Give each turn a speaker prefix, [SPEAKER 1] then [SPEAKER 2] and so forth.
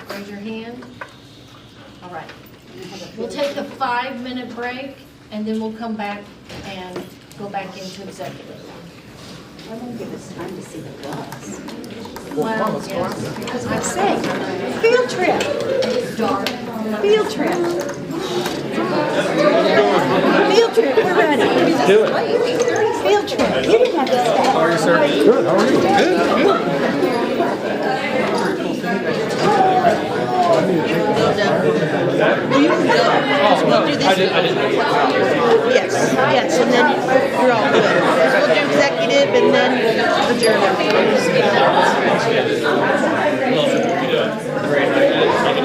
[SPEAKER 1] raise your hand. All right. We'll take a five-minute break, and then we'll come back and go back into executive.
[SPEAKER 2] Why don't give us time to see the bus?
[SPEAKER 1] Well, yes, because I
[SPEAKER 2] Say,
[SPEAKER 1] say,
[SPEAKER 2] field trip,
[SPEAKER 1] it's dark.
[SPEAKER 2] field trip. Field trip, we're ready.
[SPEAKER 3] Do it.
[SPEAKER 2] Field trip, you didn't have to stay. How are you, sir?
[SPEAKER 3] Good. How are you? Good. Good. I did. I didn't.
[SPEAKER 2] Yes, yes, and then you're all good. We'll do executive and then adjourn.